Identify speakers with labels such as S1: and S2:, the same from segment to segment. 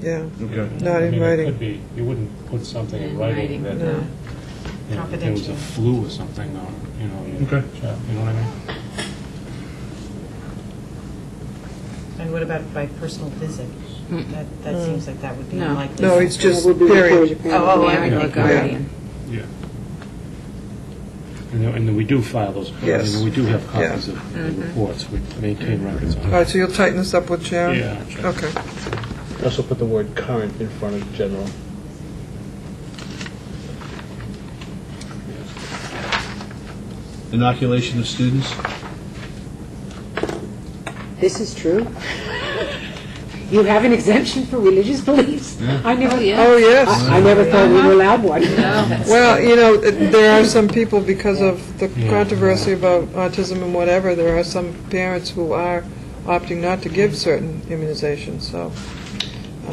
S1: yeah,
S2: Okay.
S1: not
S3: I
S1: in
S3: mean, it
S1: writing.
S3: could be- You wouldn't put something in
S4: In
S3: writing
S4: writing,
S3: that,
S1: no.
S3: you know, if there was a
S4: Confidential.
S3: flu or something, or, you know, you you know
S2: Okay.
S3: what I mean?
S4: And what about by personal visit? That, that seems like that would be
S5: No.
S4: unlikely.
S1: No, it's just
S6: Would be the
S1: period.
S6: parent.
S4: Oh, oh, I
S5: Parent or
S4: think,
S5: guardian.
S3: Yeah. And then- And then we do file those, I mean,
S1: Yes.
S3: we do have
S1: Yeah.
S3: copies of the reports, we maintain records on
S1: All
S3: it.
S1: right, so you'll tighten this up with Sharon?
S3: Yeah.
S1: Oh, Okay.
S7: Also put the word current in front of general.
S2: Inoculation of students?
S6: This is true. You have an exemption for religious beliefs? I never,
S1: Oh, yes.
S6: I I never thought we were allowed one.
S5: Oh.
S1: Well, you know, it- there are some people, because of the
S3: Yeah.
S1: controversy about autism and whatever, there are some parents who are opting not to give certain immunizations, so,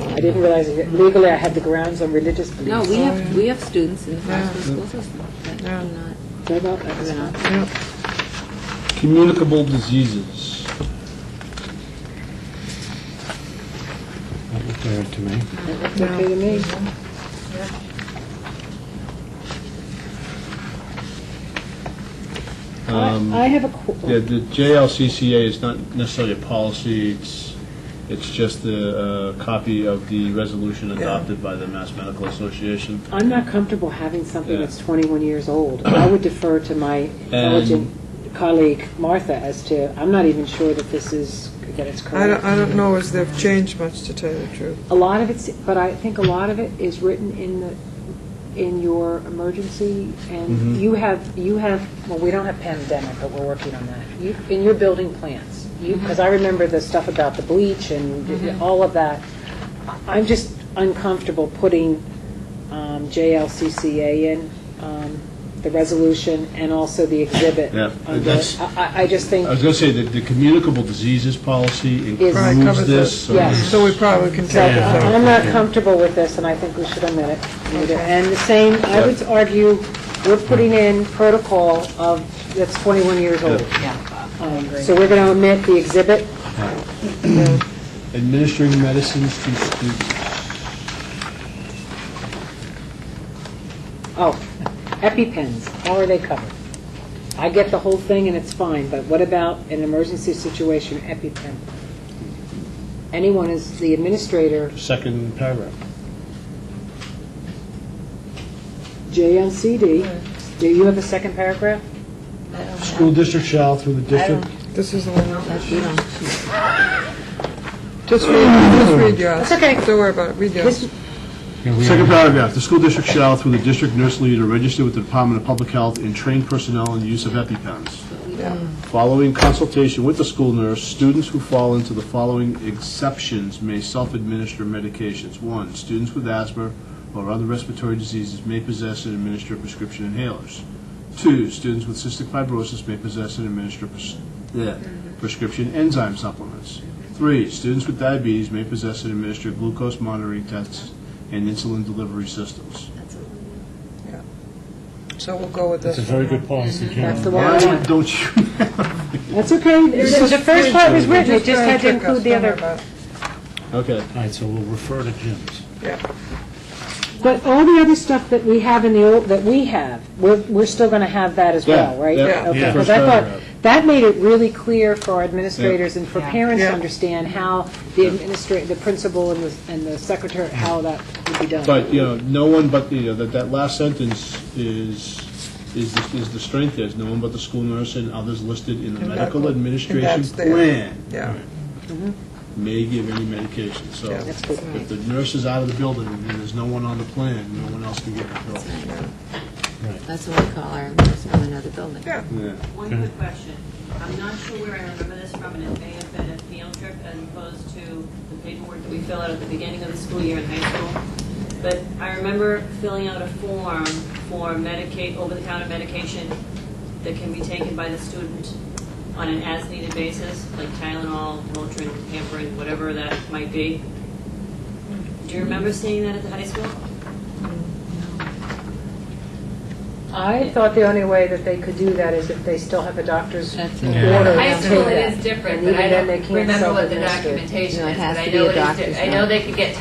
S6: I didn't realize it. legally I had the grounds on religious
S5: No,
S6: beliefs.
S5: we have, we have students in the
S1: Yeah.
S5: Foster School System that do
S1: Yeah.
S5: not,
S6: What about that?
S5: do not
S1: yeah.
S2: Communicable diseases.
S3: That looked all right to me.
S6: Okay to me.
S2: Um,
S6: I I have a, qu-
S2: Yeah, the JLCCA is not necessarily a policy, it's, it's just a uh, copy of the resolution adopted by the Mass Medical Association.
S6: I'm not comfortable having something
S2: Yeah.
S6: that's 21 years old. I would defer to my intelligent colleague Martha as to, I'm not even sure that this is, that it's
S1: I
S6: correct.
S1: don't, I don't know as they've changed much, to tell you the truth.
S6: A lot of it's, but I think a lot of it is written in the, in your emergency,
S2: Mm-hmm.
S6: and you have, you have, well, we don't have pandemic, but we're working on that. You, in your building plans, you, because I remember the stuff about the bleach and all of that. I- I'm just uncomfortable putting um, JLCCA in, um, the resolution, and also the exhibit.
S2: Yeah,
S6: on the-
S2: that's-
S6: I, I- I just think,
S2: I was going to say that the communicable diseases policy
S6: Right,
S2: includes
S1: covers
S2: this.
S1: it.
S2: so
S6: Yeah.
S2: it's-
S1: So we probably can
S6: So
S1: take it
S6: I-
S1: out.
S6: I'm not comfortable with this, and I think we should omit it. And the same, I would argue, we're putting in protocol of, that's 21 years old.
S4: yeah.
S6: Um, So we're going to omit the exhibit.
S2: Administering medicines to students.
S6: Oh, EpiPens, how are they covered? I get the whole thing and it's fine, but what about an emergency situation, EpiPen? Anyone is the administrator,
S2: Second paragraph.
S6: JNCD. Do you have a second paragraph?
S2: School district shall, through the district.
S1: This is the one,
S5: that you don't.
S1: just read, just read yours.
S6: It's okay.
S1: Don't worry about it, read yours.
S6: This-
S3: Yeah, we
S2: Second
S3: are-
S2: paragraph, the school district shall, through the district nurse leader, register with the Department of Public Health and train personnel in the use of EpiPens. Following consultation with the school nurse, students who fall into the following exceptions may self-administer medications. One, students with asthma or other respiratory diseases may possess and administer prescription inhalers. Two, students with cystic fibrosis may possess and administer pres- bleh, prescription enzyme supplements. Three, students with diabetes may possess and administer glucose monitoring tests and insulin delivery systems.
S1: So we'll go with
S3: It's
S1: this.
S3: a very good policy, Jim.
S6: Mm-hmm. That's the one I
S2: Why
S6: want.
S2: don't you?
S6: That's okay. The the first part was written, it just had to include the other.
S2: Okay.
S3: All right, so we'll refer to Jim's.
S6: But all the other stuff that we have in the old, that we have, we're, we're still going to have that as well,
S2: Yeah,
S6: right?
S2: yeah,
S6: Okay,
S3: yeah.
S6: 'cause I thought-
S2: First
S6: That made it really clear for our administrators and for
S4: Yeah.
S6: parents to
S1: Yeah.
S6: understand how the administrator, the principal and the, and the secretary, how that would be done.
S2: But, you know, no one but, you know, that, that last sentence is, is, the- is the strength there, is no one but the school nurse and others listed in the
S1: And
S2: medical
S1: medical-
S2: administration
S1: and that's there.
S2: plan
S1: Yeah,
S2: may give any medication, so
S1: Yeah.
S6: That's good.
S2: if the nurse is out of the building and there's no one on the plan, no one else can get control.
S5: That's what we call our nurse from another building.
S1: yeah.
S2: Yeah.
S8: One quick question. I'm not sure where I remember this from, and it may have been a field trip as opposed to the paperwork that we fill out at the beginning of the school year in high school. But I remember filling out a form for Medicaid, over-the-counter medication that can be taken by the student on an as-needed basis, like Tylenol, Motrin, Pampers, whatever that might be. Do you remember seeing that at the high school?
S6: I thought the only way that they could do that is if they still have a doctor's
S5: That's it.
S6: order.
S9: High
S6: to
S9: school, it
S6: take that.
S9: is different,
S6: And
S9: but I
S6: even
S9: don't
S6: then they can't
S9: remember what the
S6: self-administer.
S9: documentation
S5: No, it
S9: is,
S5: has
S9: but I
S5: to be a
S9: know it is,
S5: doctor's
S9: di- I
S5: note.
S9: know they could get